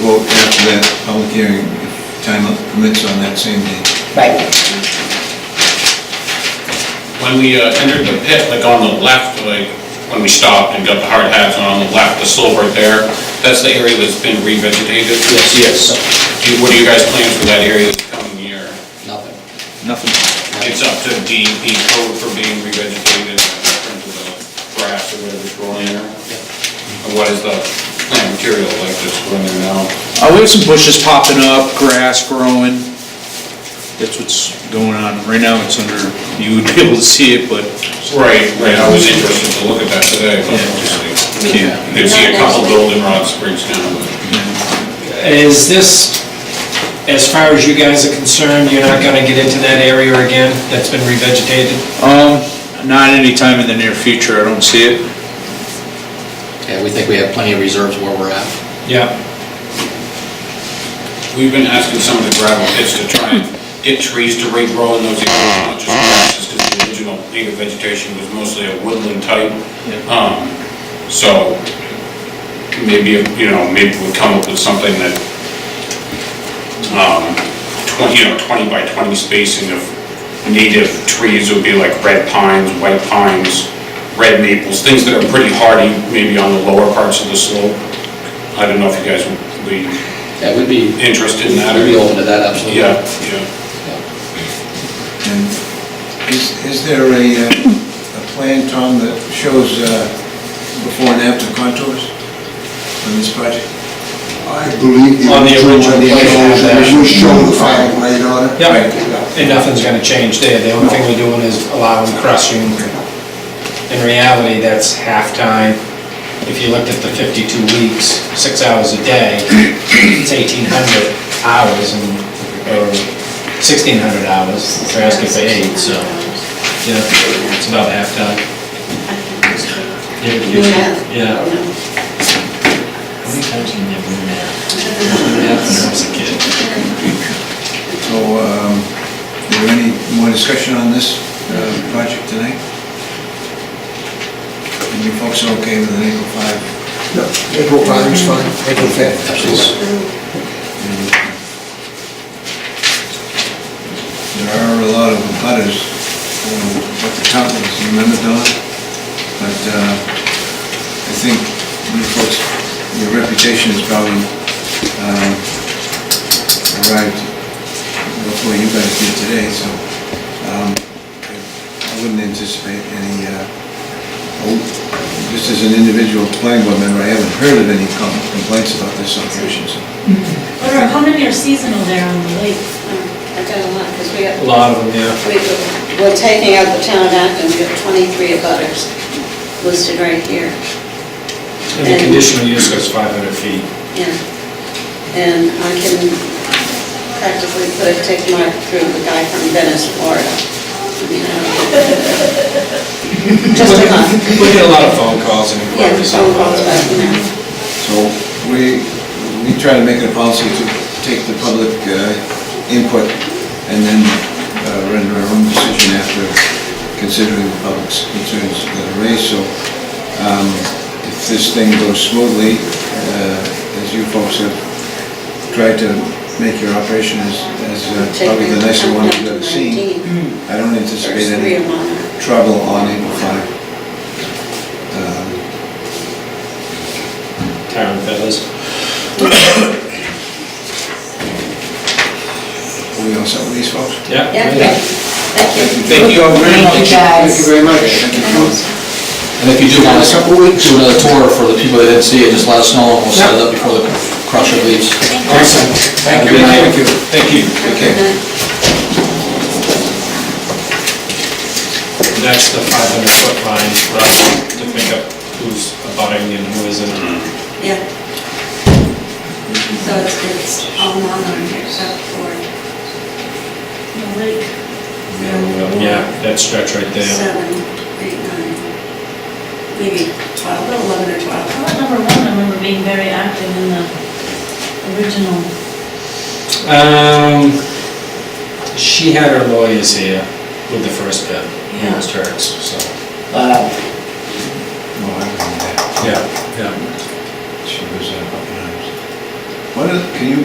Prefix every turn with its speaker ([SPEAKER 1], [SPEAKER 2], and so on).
[SPEAKER 1] vote after that public hearing, if time permits on that same day.
[SPEAKER 2] Right,
[SPEAKER 3] When we uh, entered the pit, like on the left, like when we stopped and got the hard hats on, on the left, the silver there, that's the area that's been revegetated?
[SPEAKER 4] Yes.
[SPEAKER 3] Do you- What are you guys planning for that area this coming year?
[SPEAKER 4] Nothing.
[SPEAKER 1] Nothing.
[SPEAKER 3] It's up to DEP code for being revegetated uh, in terms of the grass or whatever's growing there? And what is the plant material like that's growing there now?
[SPEAKER 5] Uh, we have some bushes popping up, grass growing. That's what's going on. Right now, it's under, you would be able to see it, but
[SPEAKER 3] Right, right, I was interested to look at that today, but just like,
[SPEAKER 5] you can't.
[SPEAKER 3] you could see a couple golden rod springs down,
[SPEAKER 6] Is this, as far as you guys are concerned, you're not gonna get into that area again that's been revegetated?
[SPEAKER 5] Um, not anytime in the near future, I don't see it.
[SPEAKER 4] Yeah, we think we have plenty of reserves where we're at.
[SPEAKER 6] Yeah.
[SPEAKER 3] We've been asking some of the gravel pits to try and get trees to regrow in those areas, not just grasses, because the original native vegetation was mostly a woodland type. Um, So maybe, you know, maybe we'll come up with something that, um, 20, you know, 20 by 20 spacing of native trees would be like red pines, white pines, red maples, things that are pretty hardy, maybe on the lower parts of the slope. I don't know if you guys would be
[SPEAKER 4] Yeah, we'd be,
[SPEAKER 3] interested in that,
[SPEAKER 4] we'd be
[SPEAKER 3] or,
[SPEAKER 4] open to that, absolutely.
[SPEAKER 3] yeah, yeah.
[SPEAKER 1] And is, is there a, uh, a plan, Tom, that shows uh, before and after contours on this project?
[SPEAKER 7] I believe the
[SPEAKER 6] On the
[SPEAKER 7] original
[SPEAKER 6] original plan,
[SPEAKER 7] plan
[SPEAKER 6] yeah.
[SPEAKER 7] was showing the final grade on it.
[SPEAKER 6] Yeah. And nothing's gonna change there, the only thing we're doing is allowing crushing. In reality, that's halftime. If you looked at the fifty-two weeks, six hours a day, it's eighteen hundred hours and, or sixteen hundred hours, they're asking for eight, so, yeah, it's about halftime. Yeah. How many times have you been there? When I was a kid.
[SPEAKER 1] So, um, is there any more discussion on this uh, project tonight? And you folks are okay with an April 5?
[SPEAKER 7] No, April 5 is fine, April 5th.
[SPEAKER 4] Absolutely.
[SPEAKER 1] There are a lot of butters, um, what the town is, you remember Don? But uh, I think you folks, your reputation has probably um, arrived before you guys did today, so um, I I wouldn't anticipate any, uh, oh, just as an individual planning board member, I haven't heard of any com- complaints about this operation, so.
[SPEAKER 8] What are- How many are seasonal there on the lake?
[SPEAKER 9] I've got a lot, because we got,
[SPEAKER 6] A lot of them, yeah.
[SPEAKER 9] we, we're taking out the town of Acton, we got 23 abutters listed right here,
[SPEAKER 6] And the conditional use goes 500 feet.
[SPEAKER 9] yeah. And I can practically put a tick mark through the guy from Venice, Florida. I mean, I don't- Just a month,
[SPEAKER 6] We get a lot of phone calls and
[SPEAKER 9] yeah,
[SPEAKER 6] inquiries.
[SPEAKER 9] phone calls, but, you know.
[SPEAKER 1] So we, we try to make it a policy to take the public uh, input and then uh, render our own decision after considering the public's concerns that are raised. So um, if this thing goes smoothly, uh, as you folks have tried to make your operation as, as uh, probably the nicer one you've ever seen,
[SPEAKER 6] Mm-hmm.
[SPEAKER 1] I don't anticipate
[SPEAKER 9] There's three
[SPEAKER 1] any
[SPEAKER 9] of them.
[SPEAKER 1] trouble on April 5. Um,
[SPEAKER 6] Town fellas.
[SPEAKER 1] Are we on some of these folks?
[SPEAKER 6] Yeah.
[SPEAKER 9] Yeah, okay. thank you.
[SPEAKER 1] Thank you all very much.
[SPEAKER 2] thank you guys.
[SPEAKER 1] very much. Thank you.
[SPEAKER 4] And if you do want us to do another tour for the people that didn't see it, just let us know, and we'll set it up before the crusher leaves.
[SPEAKER 6] Awesome. Thank you.
[SPEAKER 1] Thank you.
[SPEAKER 6] Thank you.
[SPEAKER 1] Okay.
[SPEAKER 6] That's the 500 foot line for us to pick up who's abiding and who isn't.
[SPEAKER 9] Yeah. So it's, it's all non-owned except for
[SPEAKER 8] The lake?
[SPEAKER 6] Yeah, that stretch right there.
[SPEAKER 9] seven, eight, nine, maybe twelve, eleven or twelve.
[SPEAKER 8] Well, number one, I remember being very active in the original.
[SPEAKER 6] Um, she had her lawyers here with the first bid. It was hers, so.
[SPEAKER 2] wow.
[SPEAKER 1] Well, I remember that.
[SPEAKER 6] Yeah, yeah.
[SPEAKER 1] She was uh, up in arms. What is, can you